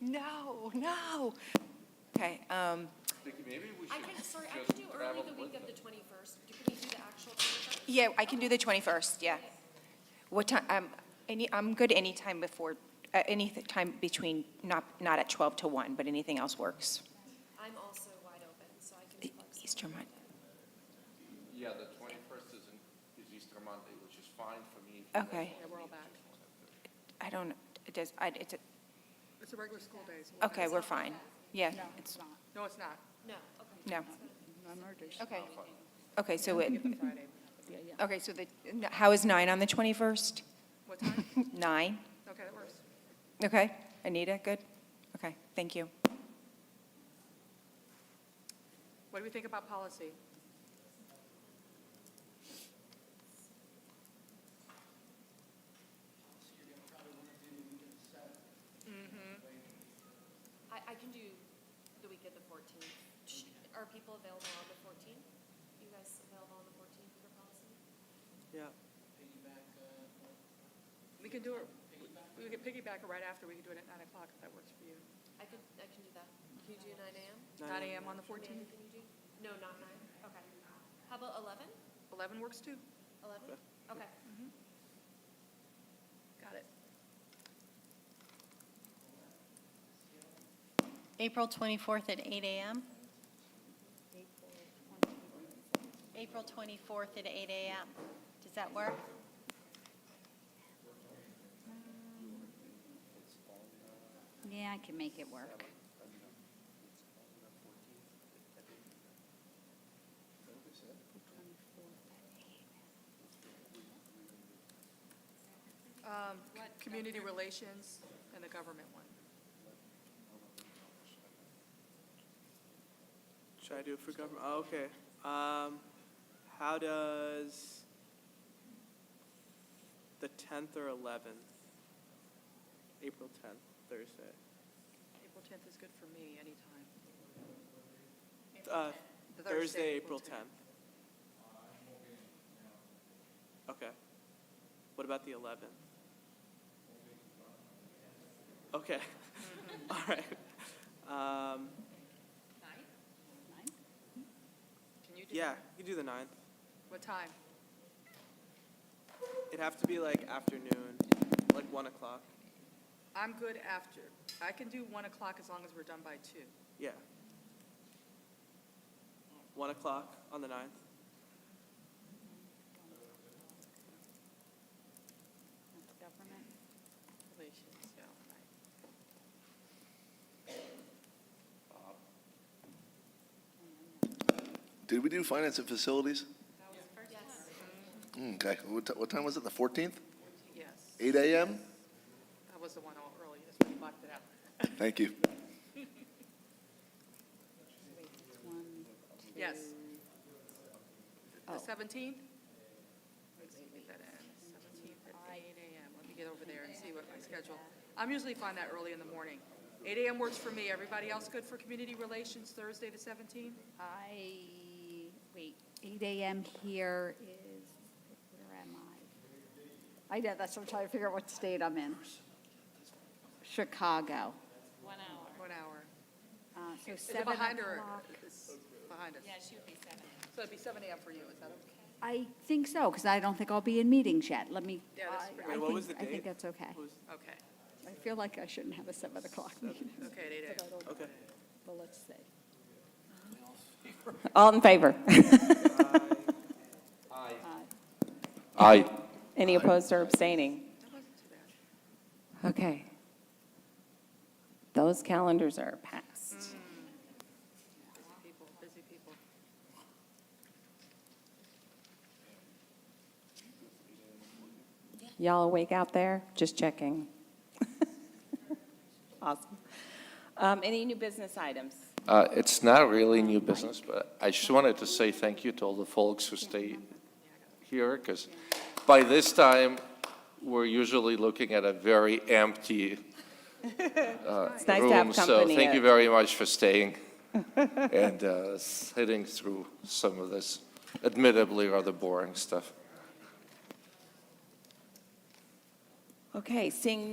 no, no. Okay, um, Vicky, maybe we I should can, sorry, I just can do early travel the with week of them. the 21st. Do- Can we do the actual 21st? yeah, I can do the 21st, yeah. What time, um, any, I'm good anytime before, uh, any th- time between, not, not at 12 to 1, but anything else works. I'm also wide open, so I can. E- be flexible. Easter Monday. Yeah, the twenty-first is, in- is Easter Monday, which is fine for me. Okay. I don't, it does, I, it's, a- It's a regular school day. so- okay, we're fine. Yeah, No, it's, it's not. No, it's not. No, okay. no. Not in our dish. Okay. Okay, so it, Friday. okay, so the, how is 9 on the 21st? What time? 9? Okay, that works. Okay, Anita, good? Okay, thank you. What do we think about policy? I, I can do the week of the 14th. Sh- Are people available on the 14th? You guys available on the 14th for policy? Yeah. We can do it, we could piggyback it right after, we could do it at nine o'clock if that works for you. I could, I can do that. Can you do 9 a.m.? Nine AM on Amanda, the fourteenth, can you do? No, not 9? Okay. How about 11? eleven works too? 11? Okay. Got it. April 24th at 8 a.m.? April 24th at 8 a.m. Does that work? Yeah, I can make it work. Um, community relations and the government one. Should I do it for government? Oh, okay. Um, how does the tenth or eleventh, April tenth, Thursday? April tenth is good for me, anytime. Uh, The Thursday, April tenth. Okay. What about the eleventh? Okay. All right. Um, Can you do? yeah, that? you can do the ninth. What time? It'd have to be like afternoon, like one o'clock. I'm good after. I can do one o'clock as long as we're done by two. Yeah. One o'clock on the ninth. That's government. Relations, yeah, right. Did we do finance and facilities? Yes. Mm, Okay, what, ti- what time was it, the 14th? Yes, 8 a.m.? that was the one all early, that's why we blocked it out. Thank you. One, Yes. The Oh. seventeenth? Let's see, get that in, seventeenth at eight AM, let me get over there and see what my schedule. I'm usually fine that early in the morning. Eight AM works for me, everybody else good for community relations Thursday the seventeenth? I, wait, 8 a.m. here is, where am I? I know, that's what I'm trying to figure out what state I'm in. Chicago. One hour. Uh, So Is it 7 behind or o'clock. is behind us? Yeah, she would be seven. So it'd be seven AM for you, is that okay? I think so, because I don't think I'll be in meetings yet. Let me, Yeah, that's pretty- I- I Wait, what was think, the I think date? that's okay. Who's, Okay, I feel like I shouldn't have a 7 o'clock meeting, okay, at eight AM. okay. but let's see. All in favor? Aye. Any opposed or abstaining? That wasn't too bad. Okay. Those calendars are passed. Busy people, busy people. Y'all awake out there? Just checking. Awesome. Um, Any new business items? Uh, It's not really new business, but I just wanted to say thank you to all the folks who stay here, because by this time, we're usually looking at a very empty uh, It's nice to room. have So company. thank you very much for staying and uh, sitting through some of this admittedly rather boring stuff. Okay, seeing